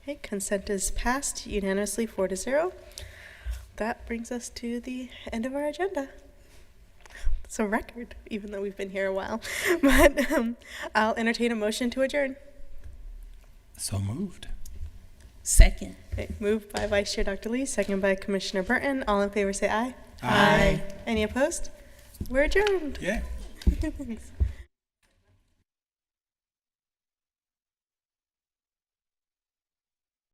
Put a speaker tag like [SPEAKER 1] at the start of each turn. [SPEAKER 1] Okay, consent is passed unanimously, four to zero. That brings us to the end of our agenda. It's a record, even though we've been here a while. But um, I'll entertain a motion to adjourn.
[SPEAKER 2] So moved.
[SPEAKER 3] Second.
[SPEAKER 1] Okay, moved by Vice Chair Dr. Lee, second by Commissioner Burton. All in favor, say aye.
[SPEAKER 2] Aye.
[SPEAKER 1] Any opposed? We're adjourned.
[SPEAKER 2] Yeah.
[SPEAKER 1] Thanks.